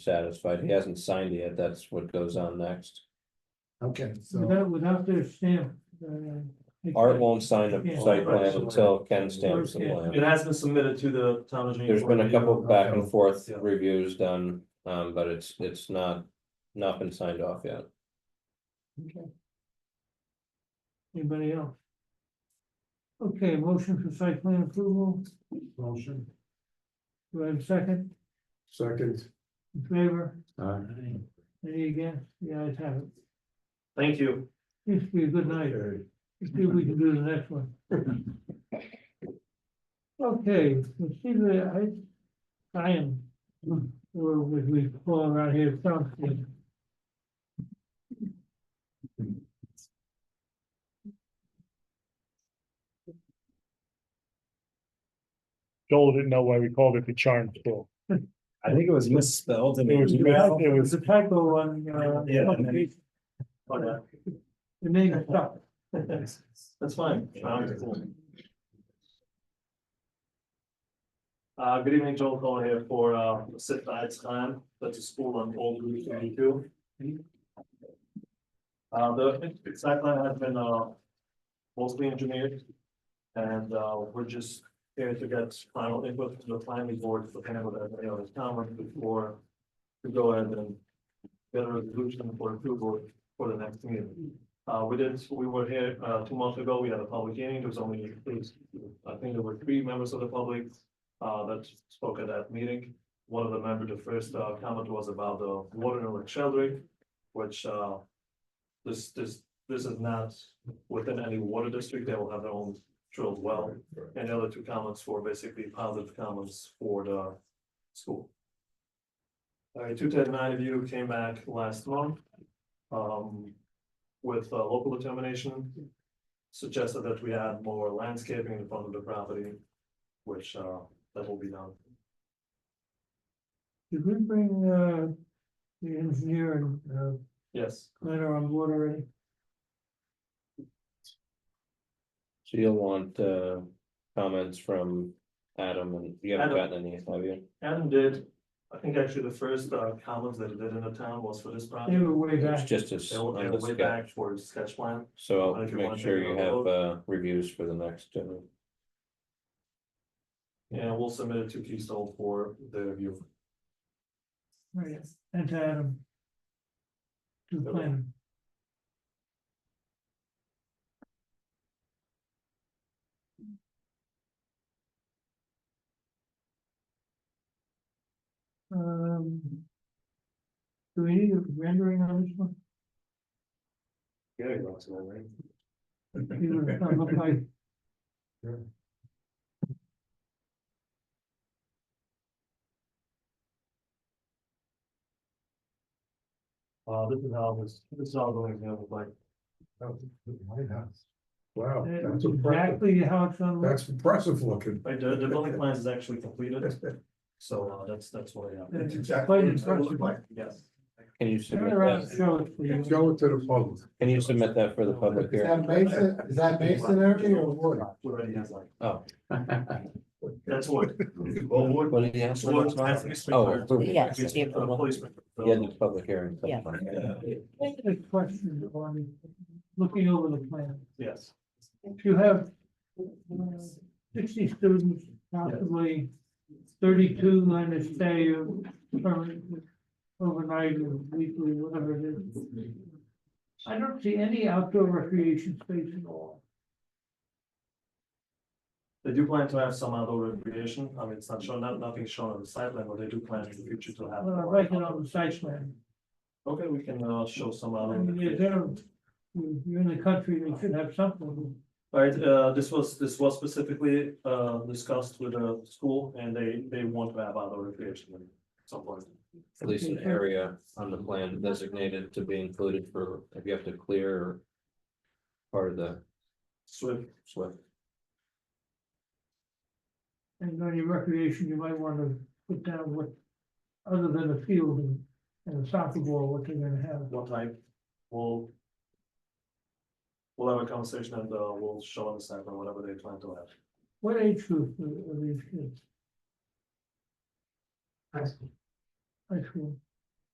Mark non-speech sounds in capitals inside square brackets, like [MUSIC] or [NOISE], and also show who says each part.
Speaker 1: satisfied. He hasn't signed yet. That's what goes on next.
Speaker 2: Okay, so,
Speaker 3: Without, without their stamp. uh,
Speaker 1: Art won't sign
Speaker 3: Yeah.
Speaker 1: the site plan until Ken stamps the plan.
Speaker 4: It has been submitted to the town engineer.
Speaker 1: There's been a couple of back and forth
Speaker 4: Yeah.
Speaker 1: reviews done, um, but it's, it's not, not been signed off yet.
Speaker 3: Anybody else? Okay, motion for site plan approval,
Speaker 2: motion,
Speaker 3: do I have a second,
Speaker 2: second,
Speaker 3: in favor,
Speaker 2: uh,
Speaker 3: any against, the ayes have it.
Speaker 4: Thank you.
Speaker 3: Used to be a good night,
Speaker 2: okay.
Speaker 3: let's see if we can do the next one. Okay, let's see the, I, Ryan, or what we call around here, something.
Speaker 5: Joel didn't know why we called it the charm school.
Speaker 6: I think it was misspelled. and
Speaker 5: It was,
Speaker 6: it-
Speaker 5: it
Speaker 3: It
Speaker 5: was,
Speaker 3: was a typo on, uh,
Speaker 6: Yeah, and then-
Speaker 3: the
Speaker 4: Oh, yeah.
Speaker 3: name is stuck.
Speaker 4: [LAUGHS] That's fine. Um, cool. Uh, good evening, Joel Cohen here for, uh, Sit by Its Time, that's a school on Old Route thirty-two. Uh, the site plan has been, uh, mostly engineered. And, uh, we're just here to get final input from the planning board for kind of any other comments before to go ahead and get a resolution for approval for the next meeting. Uh, we did, we were here, uh, two months ago, we had a public hearing, there was only, I think there were three members of the public. Uh, that spoke at that meeting, one of the members, the first, uh, comment was about the water in Lake Sheldrick, which, uh. This, this, this is not within any water district, they will have their own drilled well, and the other two comments were basically positive comments for the school. All right, two ten nine of you came back last month. Um, with uh, local determination. Suggested that we add more landscaping in front of the property, which uh, that will be done.
Speaker 3: Did we bring, uh, the engineer and, uh,
Speaker 4: Yes,
Speaker 3: planner on board already?
Speaker 1: So you'll want, uh, comments from Adam and you haven't
Speaker 4: Adam.
Speaker 1: gotten any, have you?
Speaker 4: Adam did, I think actually the first uh, comments that he did in the town was for this
Speaker 3: They
Speaker 4: project.
Speaker 3: were way
Speaker 1: It's
Speaker 3: back.
Speaker 1: just as,
Speaker 4: They were they
Speaker 1: on
Speaker 4: were
Speaker 1: the
Speaker 4: way
Speaker 1: sketch.
Speaker 4: back for his sketch plan.
Speaker 1: so
Speaker 4: Like you
Speaker 1: make
Speaker 4: want
Speaker 1: sure
Speaker 4: to
Speaker 1: you
Speaker 4: know.
Speaker 1: have, uh, reviews for the next, uh,
Speaker 4: And we'll submit it to Keystone for the review.
Speaker 3: Right, and to Adam. To the planner. Um. Do we need a rendering on this one?
Speaker 4: Yeah, you know, it's all right.
Speaker 3: See what it's gonna look like.
Speaker 4: Uh, this is how this, this is all going to look like.
Speaker 2: That was the White House. Wow, that's impressive,
Speaker 3: Exactly how it's gonna look.
Speaker 2: that's impressive looking.
Speaker 4: Right, the, the building plans is actually completed, so uh, that's, that's what I have.
Speaker 2: That's exactly what it's gonna look like.
Speaker 4: Yes.
Speaker 1: can you
Speaker 3: Turn
Speaker 1: submit
Speaker 3: it around and
Speaker 1: that?
Speaker 3: show it for you.
Speaker 2: Show it to the public.
Speaker 1: Can you submit that for the public
Speaker 2: Is
Speaker 1: hearing?
Speaker 2: that mason, is that masonry or wood?
Speaker 4: Already has like,
Speaker 1: Oh. [LAUGHS]
Speaker 4: that's what. Well, what-
Speaker 1: What did he ask?
Speaker 4: Well, it's not- it's-
Speaker 1: Oh, approval.
Speaker 7: Yes,
Speaker 4: it's
Speaker 7: the
Speaker 4: a
Speaker 7: approval.
Speaker 4: policeman.
Speaker 1: Yeah, the public hearing.
Speaker 7: Yeah.
Speaker 3: I had a question on looking over the plan.
Speaker 4: Yes,
Speaker 3: If you have uh, sixty students, possibly thirty-two on a stay or permanent overnight or weekly, whatever it is. I don't see any outdoor recreation space at all.
Speaker 4: they do plan to have some outdoor recreation, I mean, it's not shown, not, nothing shown on the site plan, but they do plan in the future to have.
Speaker 3: Well, I like it on the site plan.
Speaker 4: Okay, we can, uh, show some
Speaker 3: I
Speaker 4: outdoor.
Speaker 3: mean, you're
Speaker 4: recreation.
Speaker 3: there, you're in the country, you should have something.
Speaker 4: Alright, uh, this was, this was specifically, uh, discussed with the school, and they, they want to have outdoor recreation at some point.
Speaker 1: At least an area on the plan designated to be included for, if you have to clear. Part of the
Speaker 4: Swift,
Speaker 1: SWIP.
Speaker 3: And on your recreation, you might want to put down what, other than a field and- and a soccer ball, what they're gonna have.
Speaker 4: what type, we'll. We'll have a conversation and, uh, we'll show on the site plan whatever they plan to have.
Speaker 3: What age group are are these kids? High school. High school.